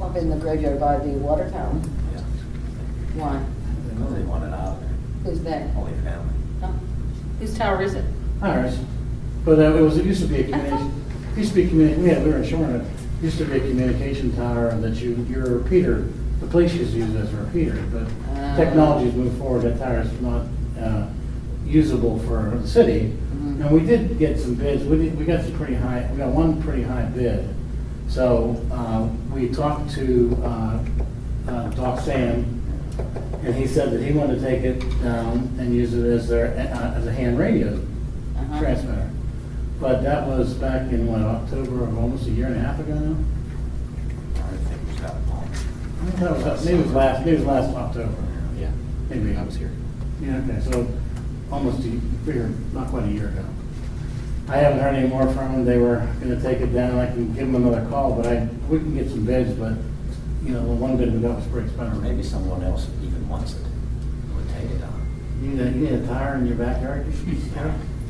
up in the graveyard by the water tower. Why? They know they want it out of there, Who's that? only family. Huh? Whose tower is it? Ours. But uh, it was, it used to be a community, used to be communi, yeah, we were in Shoreham. It used to be a communication tower and that you, your repeater, the police used to use it as a repeater, but Ah. technology's moved forward, that tower is not uh, usable for the city. Mhm. And we did get some bids, we did, we got some pretty high, we got one pretty high bid. So uh, we talked to uh, uh, Doc Sam, and he said that he wanted to take it down and use it as their, uh, as a hand radio Uh-huh. transmitter. But that was back in, what, October of almost a year and a half ago now? I think it's got a home. I think that was, maybe it was last, maybe it was last October. Yeah, Maybe. I was here. Yeah, okay, so almost a year, not quite a year ago. I haven't heard any more from them. They were gonna take it down. I can give them another call, but I, we can get some bids, but, you know, the one bid we got was pretty Or expensive. maybe someone else even wants it, would take it on. You need a, you need a tire in your backyard?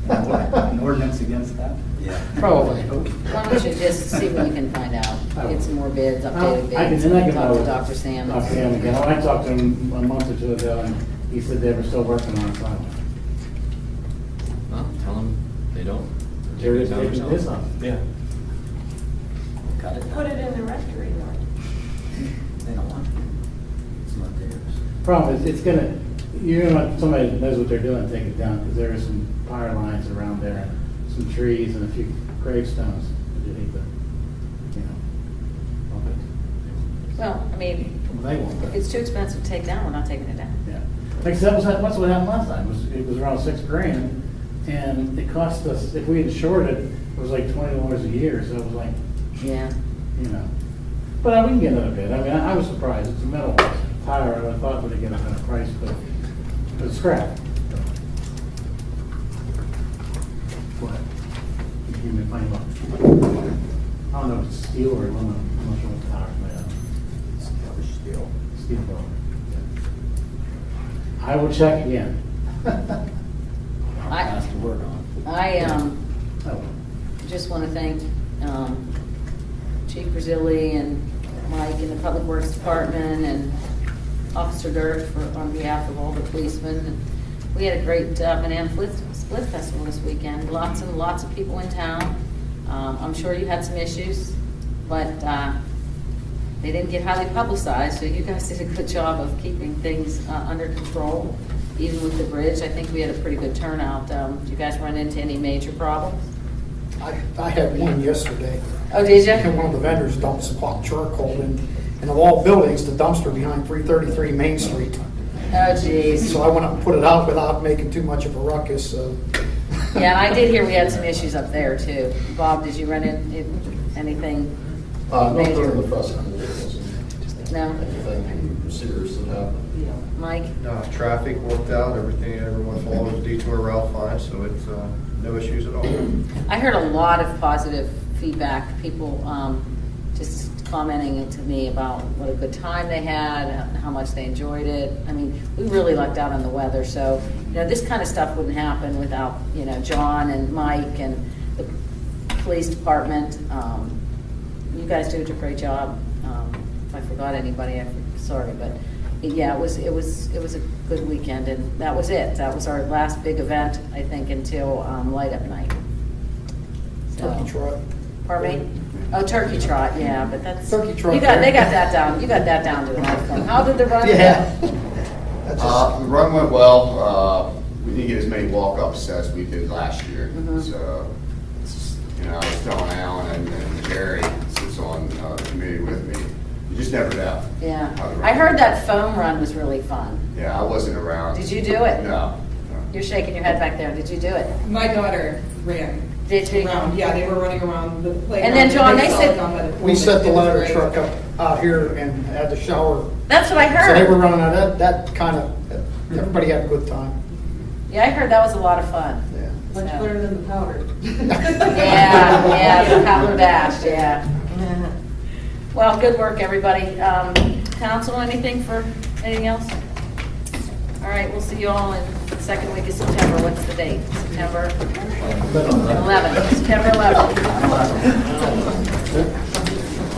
An ordinance against that? Yeah. Probably. Why don't you just see what you can find out? I will. Get some more bids, updated Oh. I bids. can, and I can. Talk to always- Dr. Sam. Talk to him again. I talked to him a month or two ago, and he said they were still working on it, so. Well, tell them they don't. They're just taking this off. Yeah. Cut it Put down. it in the rectory, Lord. They don't want it. It's not theirs. Problem is, it's gonna, you're gonna, have somebody that knows what they're doing, take it down, because there are some power lines around there, some trees and a few gravestones that you need to, you know. bump it. Well, I mean, Well, They won't, if but, it's too expensive to take down, we're not taking it down. yeah. Like, so that was, that's what happened last time, was, it was around six grand, and it cost us, if we insured it, it was like twenty dollars a year, so it was like, Yeah. you know. But uh, we can get another bid. I mean, I I was surprised. It's a metal tire. and I thought we'd get a better price, but but it's scrap. What? You Give me a funny look. I don't know if it's steel or aluminum. I'm not sure what tire it's made of. Still. Steel probably. I will check again. I- That's the word on I, um, Oh, just want to thank um, Chief Brazili and Mike and the Public Works Department and Officer Dirk for, on behalf of all the policemen. And We had a great uh, Banana Split Split Festival this weekend, lots and lots of people in town. Um, I'm sure you had some issues, but uh, they didn't get highly publicized, so you guys did a good job of keeping things uh, under control, even with the bridge. I think we had a pretty good turnout. Um, Do you guys run into any major problems? I, I had one yesterday. Oh, did ya? And one of the vendors dumps hot charcoal in, in of all buildings, the dumpster behind three thirty-three Main Street. Oh, geez. So I went up and put it out without making too much of a ruckus, so. Yeah, and I did hear we had some issues up there too. Bob, did you run into anything? Uh, not major? during the festival, there wasn't No. anything serious that happened. Mike? No, Uh, traffic worked out, everything, everyone followed the detour route fine, so it's, uh, no issues at all. I heard a lot of positive feedback, people um, just commenting to me about what a good time they had, how much they enjoyed it. I mean, we really lucked out on the weather, so, you know, this kind of stuff wouldn't happen without, you know, John and Mike and the police department. Um, You guys do a great job. Um, If I forgot anybody, I'm sorry, but, yeah, it was, it was, it was a good weekend, and that was it. That was our last big event, I think, until um, Light Up Night. So- Turkey trot. Pardon me? Oh, turkey trot, yeah, but that's. Turkey trot You got, they there. got that down, you got that down to an art form. How did the run? go? Yeah. That's Uh, just- the run went well, uh, we didn't get as many walk-ups as we did last year, Mhm. so, it's- you know, I was telling Alan and- and Jerry, sits on, uh, the committee with me, you just never know. how the Yeah. run- I heard that foam run was really fun. Yeah, I wasn't around. Did you do it? No, no. You're shaking your head back there, did you do it? My daughter ran Did you? around, yeah, they were running around the playground. And then, John, they saw said- it done by the We pool. set the It was ladder great. truck up out here and had the shower. That's what I So they were heard. running out, that, that kind of, everybody had a good time. Yeah, I heard that was a lot of fun. Yeah. Much So- better than the powder. Yeah, yeah, the Howler Dash, yeah. Well, good work, everybody. Um, Council, anything for, anything else? All right, we'll see you all in the second week of September. What's the date? September 11th, September 11th.